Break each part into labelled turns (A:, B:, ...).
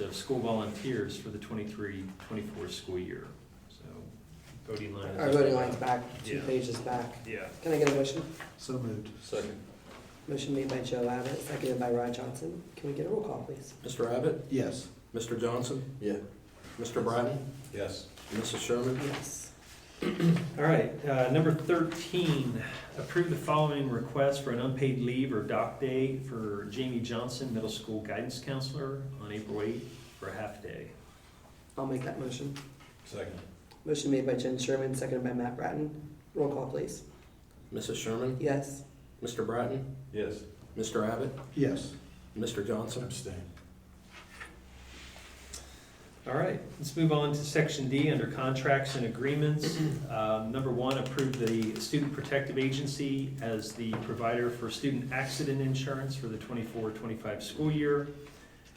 A: of school volunteers for the 23-24 school year. So voting line. is-
B: Our voting line's back, two
A: Yeah.
B: pages back.
A: Yeah.
B: Can I get a motion?
C: So moved.
D: Second.
B: Motion made by Joe Abbott, seconded by Rod Johnson. Can we get a roll call, please?
D: Mr. Abbott?
C: Yes.
D: Mr. Johnson? Yeah. Mr. Bratton?
C: Yes.
D: Mrs. Sherman?
B: Yes.
A: All right, uh, number thirteen, approve the following request for an unpaid leave or dock day for Jamie Johnson, middle school guidance counselor, on April eighth for a half day.
B: I'll make that motion.
C: Second.
B: Motion made by Jen Sherman, seconded by Matt Bratton. Roll call, please.
D: Mrs. Sherman?
B: Yes.
D: Mr. Bratton?
C: Yes.
D: Mr. Abbott?
C: Yes.
D: Mr. Johnson?
C: Abstain.
A: All right, let's move on to section D under contracts and agreements. Um, Number one, approve the Student Protective Agency as the provider for student accident insurance for the 24-25 school year.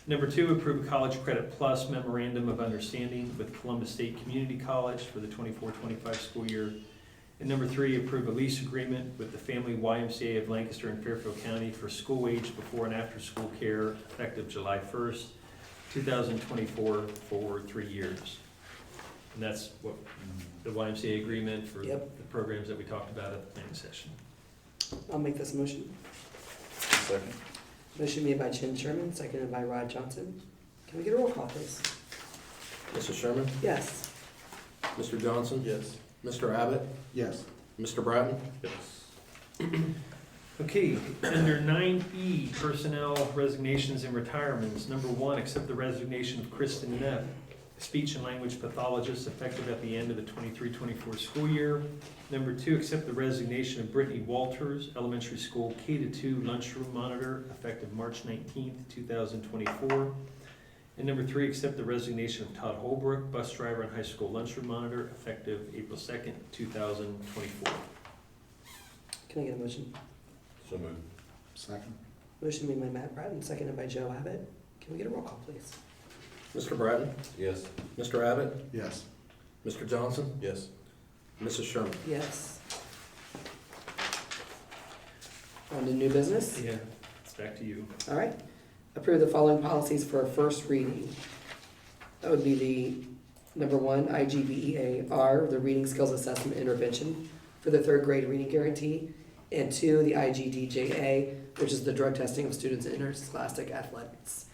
A: Number two, approve a College Credit Plus memorandum of understanding with Columbus State Community College for the 24-25 school year. And number three, approve a lease agreement with the Family YMCA of Lancaster and Fairfield County for school age before and after school care effective July first, 2024 for three years. And that's what,
C: Mm-hmm.
A: the YMCA agreement for the
B: Yep.
A: programs that we talked about at the planning session.
B: I'll make this motion.
C: Second.
B: Motion made by Jen Sherman, seconded by Rod Johnson. Can we get a roll call, please?
D: Mrs. Sherman?
B: Yes.
D: Mr. Johnson?
C: Yes.
D: Mr. Abbott?
C: Yes.
D: Mr. Bratton?
A: Okay, under nine E, personnel resignations and retirements. Number one, accept the resignation of Kristen Neff, speech and language pathologist, effective at the end of the 23-24 school year. Number two, accept the resignation of Brittany Walters, elementary school K to two lunchroom monitor, effective March nineteenth, two thousand twenty-four. And number three, accept the resignation of Todd Holbrook, bus driver and high school lunchroom monitor, effective April second, two thousand twenty-four.
B: Can I get a motion?
D: So moved.
C: Second.
B: Motion made by Matt Bratton, seconded by Joe Abbott. Can we get a roll call, please?
D: Mr. Bratton?
C: Yes.
D: Mr. Abbott?
C: Yes.
D: Mr. Johnson?
C: Yes.
D: Mrs. Sherman?
B: Yes. On to new business.
A: Yeah, it's back to you.
B: All right. Approve the following policies for a first reading. That would be the number one, IGBEAR, E the Reading Skills Assessment Intervention for the third grade reading guarantee. And two, the IGDJA, which is the drug testing of students in interscholastic athletics.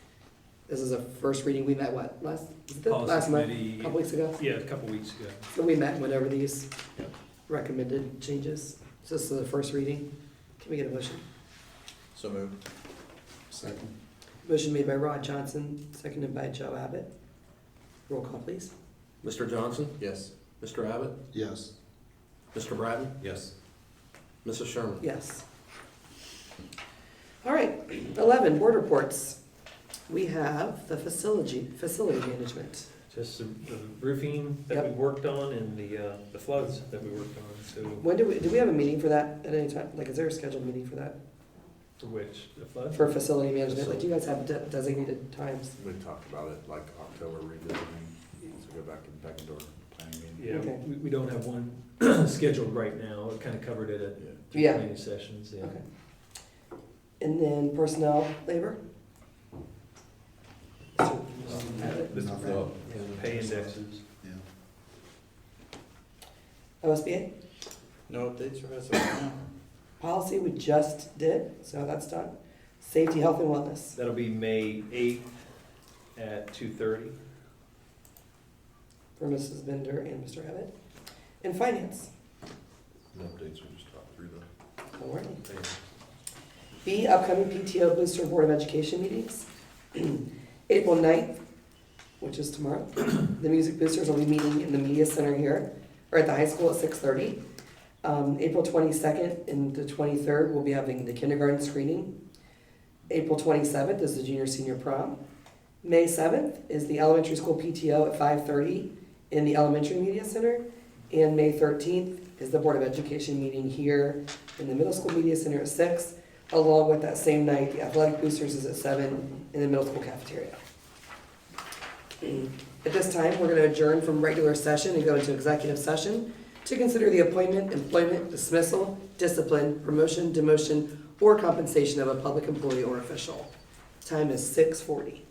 B: This is a first reading. We met what, last, was it the
A: Policy
B: last month, a
A: committee-
B: couple weeks ago?
A: Yeah, a couple weeks ago.
B: So we met and went over these
D: Yep.
B: recommended changes. So this is the first reading. Can we get a motion?
C: So moved. Second.
B: Motion made by Rod Johnson, seconded by Joe Abbott. Roll call, please.
D: Mr. Johnson?
C: Yes.
D: Mr. Abbott?
C: Yes.
D: Mr. Bratton?
C: Yes.
D: Mrs. Sherman?
B: Yes. All right, eleven, board reports. We have the facility, facility management.
A: Just the the roofing that we worked on and the, uh, the floods that we worked on, so,
B: When do we, do we have a meeting for that at any time? Like, is there a scheduled meeting for that,
A: for which, the flood?
B: for facility management? Like, do you guys have de- designated times?
E: We talked about it, like October revisiting, so go back and back into our planning meeting.
A: Yeah,
B: Okay.
A: we, we don't have one scheduled right now, it kind of covered it at
E: Yeah.
A: three
B: Yeah.
A: planning sessions, yeah.
B: Okay. And then personnel, labor?
A: Mr. Brown, yeah, Pay indexes.
C: Yeah.
B: OSBA?
E: No updates for us right now?
B: Policy we just did, so that's done. Safety, health, and wellness.
A: That'll be May eighth at two thirty.
B: for Mrs. Bender and Mr. Abbott. And finance,
E: No updates, we just talked through the.
B: don't worry. B, upcoming PTO Booster Board of Education meetings. April 9th, which is tomorrow, the music boosters will be meeting in the media center here, or at the high school at 6:30. Um, April 22nd and the 23rd, we'll be having the kindergarten screening. April 27th is the junior senior prom. May 7th is the elementary school PTO at 5:30 in the elementary media center. And May 13th is the Board of Education meeting here in the middle school media center at 6, along with that same night, the athletic boosters is at 7 in the middle school cafeteria. At this time, we're going to adjourn from regular session and go into executive session to consider the appointment, employment, dismissal, discipline, promotion, demotion, or compensation of a public employee or official. Time is 6:40.